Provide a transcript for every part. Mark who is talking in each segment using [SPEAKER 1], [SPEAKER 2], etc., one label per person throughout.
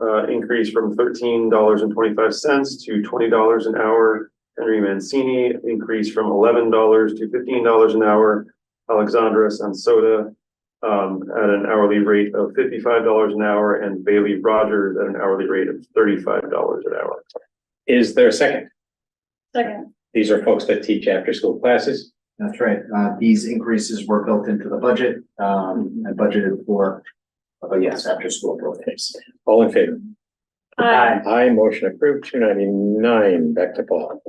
[SPEAKER 1] uh, increase from thirteen dollars and twenty-five cents to twenty dollars an hour. Henry Mancini, increase from eleven dollars to fifteen dollars an hour. Alexandra Sansota, um, at an hourly rate of fifty-five dollars an hour and Bailey Rogers at an hourly rate of thirty-five dollars an hour.
[SPEAKER 2] Is there a second?
[SPEAKER 3] Second,
[SPEAKER 2] These are folks that teach after-school classes.
[SPEAKER 4] That's right. Uh, these increases were built into the budget, um, and budgeted for. Oh, yes, after school programs.
[SPEAKER 2] All in favor?
[SPEAKER 3] aye,
[SPEAKER 2] Aye, motion approved, two ninety-nine, back to Paul.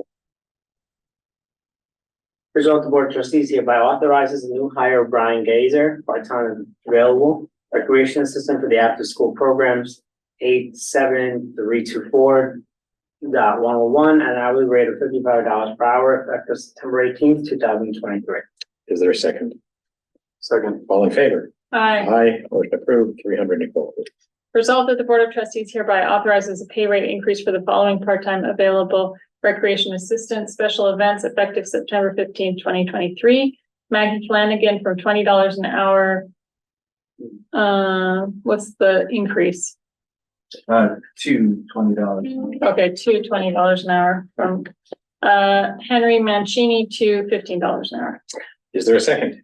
[SPEAKER 5] Result the board of trustees hereby authorizes a new hire of Brian Gazer, part-time available recreation assistant for the after-school programs eight seven three two four dot one oh one at an hourly rate of fifty-five dollars per hour effective September eighteenth, two thousand twenty-three.
[SPEAKER 2] Is there a second?
[SPEAKER 1] Second,
[SPEAKER 2] All in favor?
[SPEAKER 3] aye.
[SPEAKER 2] Aye, motion approved, three hundred Nicole.
[SPEAKER 3] Resolved that the Board of Trustees hereby authorizes a pay rate increase for the following part-time available recreation assistant special events effective September fifteenth, twenty twenty-three. Maggie Flanagan from twenty dollars an hour. Uh, what's the increase?
[SPEAKER 4] Uh, to twenty dollars.
[SPEAKER 3] Okay, to twenty dollars an hour from, uh, Henry Mancini to fifteen dollars an hour.
[SPEAKER 2] Is there a second?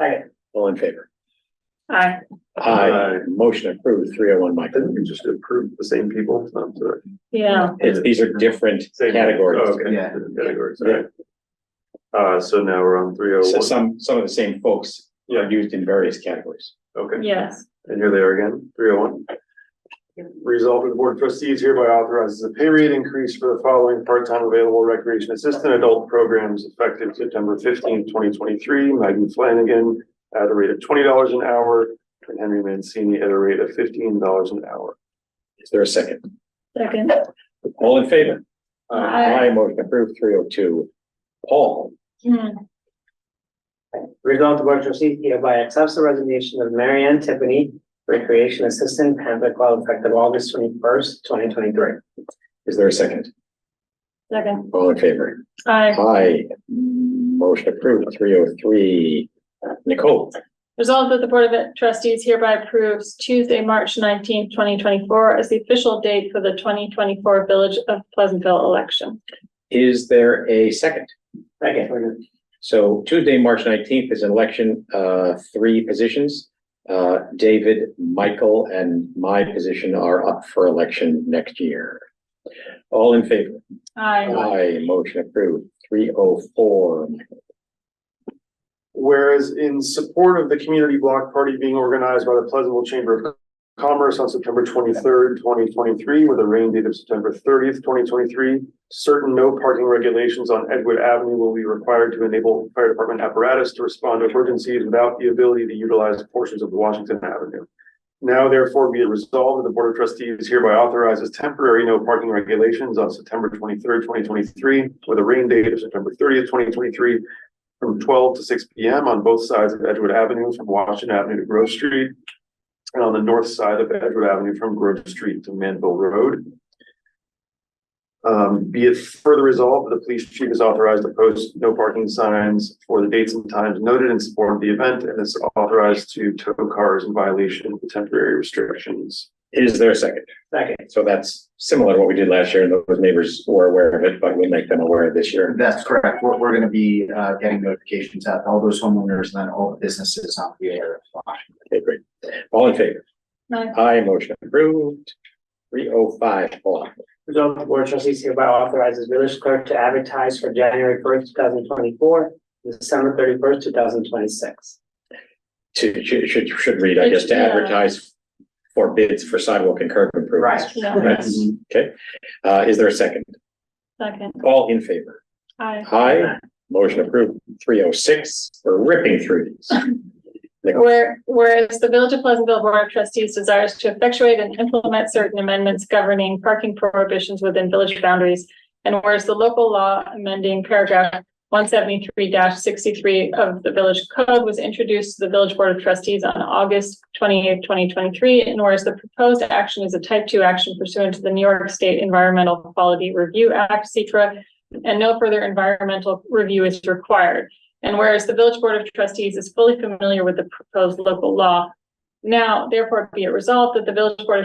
[SPEAKER 5] Aye.
[SPEAKER 2] All in favor?
[SPEAKER 3] Aye.
[SPEAKER 2] Aye, motion approved, three oh one
[SPEAKER 1] I think
[SPEAKER 2] Michael.
[SPEAKER 1] we just approved the same people, it's not uh, the
[SPEAKER 3] yeah.
[SPEAKER 2] It's, these are different
[SPEAKER 1] same. Oh,
[SPEAKER 2] categories.
[SPEAKER 1] Okay,
[SPEAKER 4] Yeah.
[SPEAKER 1] different categories, all right. Uh, so now we're on three oh
[SPEAKER 2] So
[SPEAKER 1] one,
[SPEAKER 2] some, some of the same folks
[SPEAKER 1] Yeah.
[SPEAKER 2] are used in various categories.
[SPEAKER 1] okay.
[SPEAKER 3] Yes,
[SPEAKER 1] And here they are again, three oh one. Resolved, that the board of trustees hereby authorizes a pay rate increase for the following part-time available recreation assistant adult programs effective September fifteenth, twenty twenty-three. Maggie Flanagan at a rate of twenty dollars an hour and Henry Mancini at a rate of fifteen dollars an hour.
[SPEAKER 2] Is there a second?
[SPEAKER 3] second,
[SPEAKER 2] All in favor?
[SPEAKER 3] Aye.
[SPEAKER 2] motion approved, three oh two. Paul,
[SPEAKER 3] Hmm,
[SPEAKER 5] Result the board of trustees hereby accepts the resignation of Mary Ann Tiffany, recreation assistant, Panther Club effective August twenty-first, twenty twenty-three.
[SPEAKER 2] is there a second?
[SPEAKER 3] second,
[SPEAKER 2] All in favor?
[SPEAKER 3] aye.
[SPEAKER 2] Aye, motion approved, three oh three. Nicole,
[SPEAKER 3] Resolved that the Board of Trustees hereby approves Tuesday, March nineteenth, twenty twenty-four as the official date for the twenty twenty-four Village of Pleasantville election.
[SPEAKER 2] is there a second?
[SPEAKER 5] Second.
[SPEAKER 2] So Tuesday, March nineteenth is an election, uh, three positions. Uh, David, Michael, and my position are up for election next year. All in favor?
[SPEAKER 3] Aye.
[SPEAKER 2] Aye, motion approved, three oh four.
[SPEAKER 1] Whereas in support of the community block party being organized by the Pleasantville Chamber of Commerce on September twenty-third, twenty twenty-three, with a rain date of September thirtieth, twenty twenty-three, certain no parking regulations on Edgewood Avenue will be required to enable fire department apparatus to respond to emergencies without the ability to utilize portions of Washington Avenue. Now therefore be it resolved that the Board of Trustees hereby authorizes temporary no parking regulations on September twenty-third, twenty twenty-three, with a rain date of September thirtieth, twenty twenty-three, from twelve to six P M on both sides of Edgewood Avenue from Washington Avenue to Grove Street. And on the north side of Edgewood Avenue from Grove Street to Manville Road. Um, be it further resolved, that the police chief is authorized to post no parking signs for the dates and times noted in support of the event and is authorized to tow cars in violation of the temporary restrictions.
[SPEAKER 2] Is there a second?
[SPEAKER 5] Second.
[SPEAKER 2] So that's similar to what we did last year, and those neighbors were aware of it, but we make them aware this year.
[SPEAKER 4] That's correct. We're, we're gonna be, uh, getting notifications out to all those homeowners and then all the businesses on the area. of Washington.
[SPEAKER 2] Okay, great. All in favor?
[SPEAKER 3] Aye.
[SPEAKER 2] Aye, motion approved. Three oh five, Paul.
[SPEAKER 5] Resolved the board of trustees hereby authorizes village clerk to advertise for January first, two thousand twenty-four, December thirty-first, two thousand twenty-six.
[SPEAKER 2] To, should, should, should read, I guess, to
[SPEAKER 3] Yeah.
[SPEAKER 2] advertise for bids for sidewalk and curb improvements.
[SPEAKER 3] Yeah,
[SPEAKER 2] Okay, uh, is there a second?
[SPEAKER 3] second,
[SPEAKER 2] All in favor?
[SPEAKER 3] aye.
[SPEAKER 2] Aye, motion approved. Three oh six, we're ripping through these.
[SPEAKER 3] Where, whereas the Village of Pleasantville Board of Trustees desires to effectuate and implement certain amendments governing parking prohibitions within village boundaries. And whereas the local law amending paragraph one seventy-three sixty-three of the village code was introduced to the village board of trustees on August twenty-eighth, twenty twenty-three. And whereas the proposed action is a type-two action pursuant to the New York State Environmental Quality Review Act, (CETRA), and no further environmental review is required. And whereas the village board of trustees is fully familiar with the proposed local law. Now, therefore, be it resolved that the village board of